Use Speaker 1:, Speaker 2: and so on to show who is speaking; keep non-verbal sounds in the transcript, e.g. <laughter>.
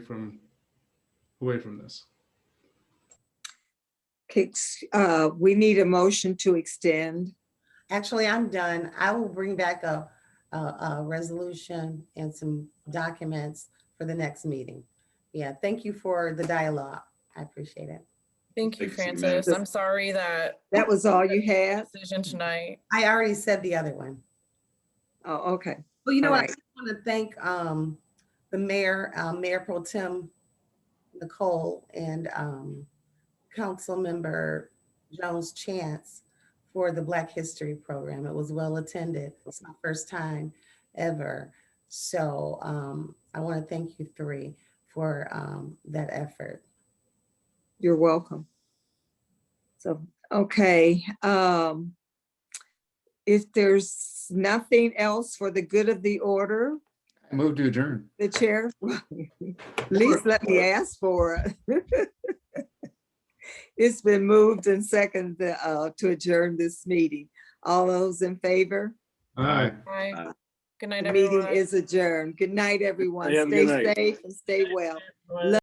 Speaker 1: from away from this.
Speaker 2: Okay, ex- uh, we need a motion to extend.
Speaker 3: Actually, I'm done. I will bring back a, a, a resolution and some documents for the next meeting. Yeah, thank you for the dialogue. I appreciate it.
Speaker 4: Thank you,
Speaker 5: Thank you, ma'am.
Speaker 4: Francis. I'm sorry that
Speaker 2: That was all you had?
Speaker 4: decision tonight.
Speaker 3: I already said the other one.
Speaker 2: Oh, okay.
Speaker 3: Well, you know
Speaker 2: All
Speaker 3: what? I
Speaker 2: right.
Speaker 3: want to thank, um, the mayor, uh, Mayor Pro Tem Nicole and, um, Councilmember Jones Chance for the Black History Program. It was well attended. It's my first time ever. So, um, I want to thank you three for, um, that effort.
Speaker 2: You're welcome. So, okay, um, if there's nothing else for the good of the order,
Speaker 1: Move to adjourn.
Speaker 2: the chair, <laughs> at least let me ask for it. <laughs> It's been moved and seconded, uh, to adjourn this meeting. All those in favor?
Speaker 1: Aye.
Speaker 4: Bye.
Speaker 5: Bye.
Speaker 4: Good night,
Speaker 2: Uh, The
Speaker 4: everyone.
Speaker 2: meeting is adjourned. Good night, everyone.
Speaker 6: Have a
Speaker 2: Stay
Speaker 6: good night.
Speaker 2: safe and stay well.
Speaker 4: Everyone.